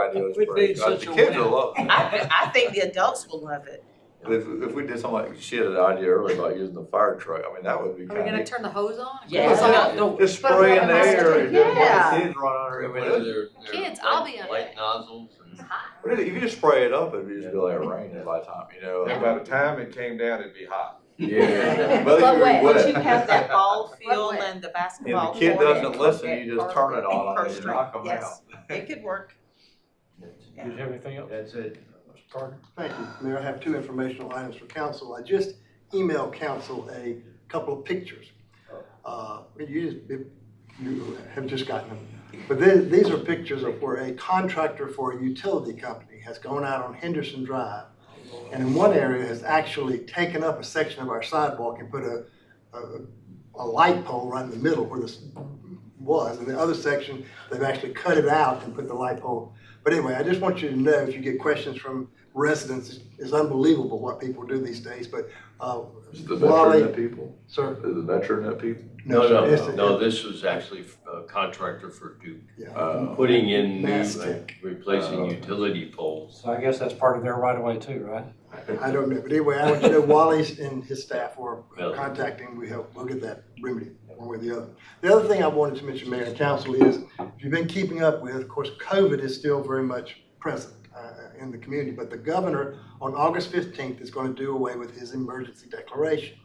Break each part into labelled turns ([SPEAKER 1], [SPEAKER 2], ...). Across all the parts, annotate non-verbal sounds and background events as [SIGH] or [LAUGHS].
[SPEAKER 1] idea was
[SPEAKER 2] Quit
[SPEAKER 1] pretty
[SPEAKER 2] being
[SPEAKER 1] good. The
[SPEAKER 2] such a
[SPEAKER 1] kids will love
[SPEAKER 2] wimp.
[SPEAKER 1] it.
[SPEAKER 3] I, thi- I think the adults will love it.
[SPEAKER 1] If, if we did something like, she had an idea earlier about using the fire truck, I mean, that would be
[SPEAKER 4] Are we
[SPEAKER 1] kind
[SPEAKER 4] gonna
[SPEAKER 1] of.
[SPEAKER 4] turn the hose on?
[SPEAKER 3] Yeah.
[SPEAKER 4] Hose on?
[SPEAKER 1] Just
[SPEAKER 4] But
[SPEAKER 1] spray in
[SPEAKER 4] what
[SPEAKER 1] the
[SPEAKER 4] am I
[SPEAKER 1] air
[SPEAKER 4] supposed
[SPEAKER 1] and
[SPEAKER 4] to-
[SPEAKER 1] just let the
[SPEAKER 3] Yeah.
[SPEAKER 1] kids run under it. I mean, it-
[SPEAKER 4] Kids, I'll be on
[SPEAKER 5] Light
[SPEAKER 4] it.
[SPEAKER 5] nozzles and.
[SPEAKER 4] Hot.
[SPEAKER 1] but If you just spray it up, it'd just be like raining by the time, you know.
[SPEAKER 6] And by the time it came down, it'd be hot.
[SPEAKER 1] Yeah.
[SPEAKER 4] But
[SPEAKER 1] But
[SPEAKER 4] wet.
[SPEAKER 3] Once you have that [LAUGHS] ball field
[SPEAKER 4] What?
[SPEAKER 3] and the
[SPEAKER 1] If
[SPEAKER 3] basketball
[SPEAKER 1] the
[SPEAKER 3] court.
[SPEAKER 1] kid
[SPEAKER 3] it
[SPEAKER 1] doesn't
[SPEAKER 3] could
[SPEAKER 1] listen,
[SPEAKER 3] get
[SPEAKER 1] you just
[SPEAKER 3] perfect.
[SPEAKER 1] turn it on and you
[SPEAKER 3] Perfect.
[SPEAKER 1] knock them out.
[SPEAKER 3] Yes. It could work.
[SPEAKER 2] Did you have anything else?
[SPEAKER 5] That's it.
[SPEAKER 7] Thank you. Mayor, I have two informational items for council. I just emailed council a couple of pictures.
[SPEAKER 1] Oh.
[SPEAKER 7] Uh, You just, you have just gotten them. But the- these are pictures of where a contractor for a utility company has gone out on Henderson Drive. And in one area has actually taken up a section of our sidewalk and put a, a, a light pole right in the middle where this was. And the other section, they've actually cut it out and put the light pole. But anyway, I just want you to know, if you get questions from residents is unbelievable what people do these days, but, uh,
[SPEAKER 1] Is the veteran
[SPEAKER 7] Wally-
[SPEAKER 1] that people?
[SPEAKER 7] sir.
[SPEAKER 1] Is the veteran that people?
[SPEAKER 5] No, no,
[SPEAKER 7] it's-
[SPEAKER 5] no, no, this was actually a contractor for Duke,
[SPEAKER 7] Yeah.
[SPEAKER 1] Uh,
[SPEAKER 5] putting in the,
[SPEAKER 7] Mastic.
[SPEAKER 5] replacing
[SPEAKER 1] Oh.
[SPEAKER 5] utility poles.
[SPEAKER 2] So I guess that's part of their right of way too, right?
[SPEAKER 7] I don't know, but anyway, I want you to know Wally's and his staff were
[SPEAKER 5] Yeah.
[SPEAKER 7] contacting, we help, we'll get that remedy one way or the other. The other thing I wanted to mention, Mayor and Council, is if you've been keeping up with, of course, COVID is still very much present uh, in the community, but the governor on August fifteenth is going to do away with his emergency declaration.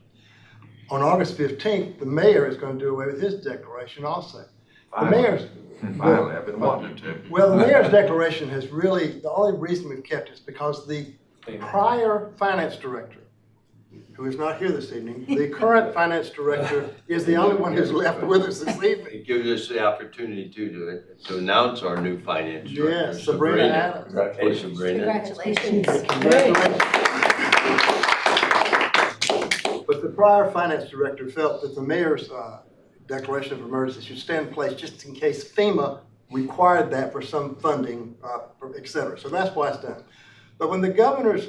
[SPEAKER 7] On August fifteenth, the mayor is going to do away with his declaration also. The
[SPEAKER 6] Finally.
[SPEAKER 7] mayor's,
[SPEAKER 6] [LAUGHS] Finally, I've been wanting to.
[SPEAKER 7] Well, the mayor's declaration has really, the only reason we've kept it is because the prior finance director, who is not here this evening, the current finance director is the only one who's left with us this evening.
[SPEAKER 5] It gives us the opportunity to, to- to announce our new finance director,
[SPEAKER 7] Yes, Sabrina
[SPEAKER 5] Sabrina. Hey,
[SPEAKER 7] Adams.
[SPEAKER 1] Congratulations.
[SPEAKER 5] Sabrina.
[SPEAKER 4] Congratulations.
[SPEAKER 7] Congratulations. But the prior finance director felt that the mayor's uh, declaration of emergency should stand in place just in case FEMA required that for some funding, uh, et cetera. So that's why it's done. But when the governor's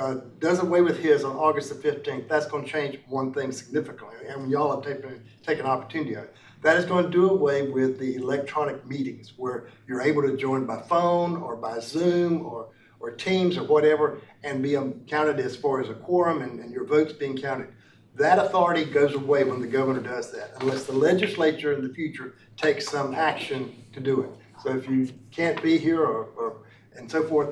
[SPEAKER 7] uh, does away with his on August the fifteenth, that's gonna change one thing significantly, and y'all have taken, taken opportunity of it. That is gonna do away with the electronic meetings, where you're able to join by phone, or by Zoom, or, or Teams, or whatever, and be um, counted as far as a quorum, and, and your votes being counted. That authority goes away when the governor does that, unless the legislature in the future takes some action to do it. So if you can't be here, or, or, and so forth,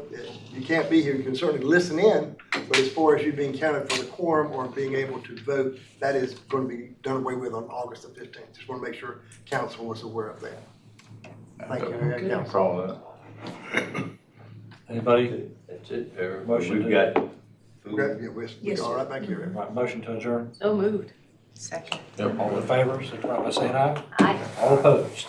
[SPEAKER 7] you can't be here, you can certainly listen in, but as far as you being counted for the quorum or being able to vote, that is going to be done away with on August the fifteenth. Just want to make sure council was aware of that. Thank you, Mayor and
[SPEAKER 1] No
[SPEAKER 7] Council.
[SPEAKER 1] problem.
[SPEAKER 2] Anybody?
[SPEAKER 5] That's it, Eric.
[SPEAKER 2] Motion
[SPEAKER 5] We've
[SPEAKER 2] to-
[SPEAKER 5] got
[SPEAKER 7] Okay,
[SPEAKER 5] food.
[SPEAKER 7] yeah, we're, we're all right back here.
[SPEAKER 2] Right, motion to adjourn.
[SPEAKER 4] So moved.
[SPEAKER 3] Second.
[SPEAKER 2] All in favor, signify by saying aye.
[SPEAKER 4] Aye.
[SPEAKER 2] All opposed.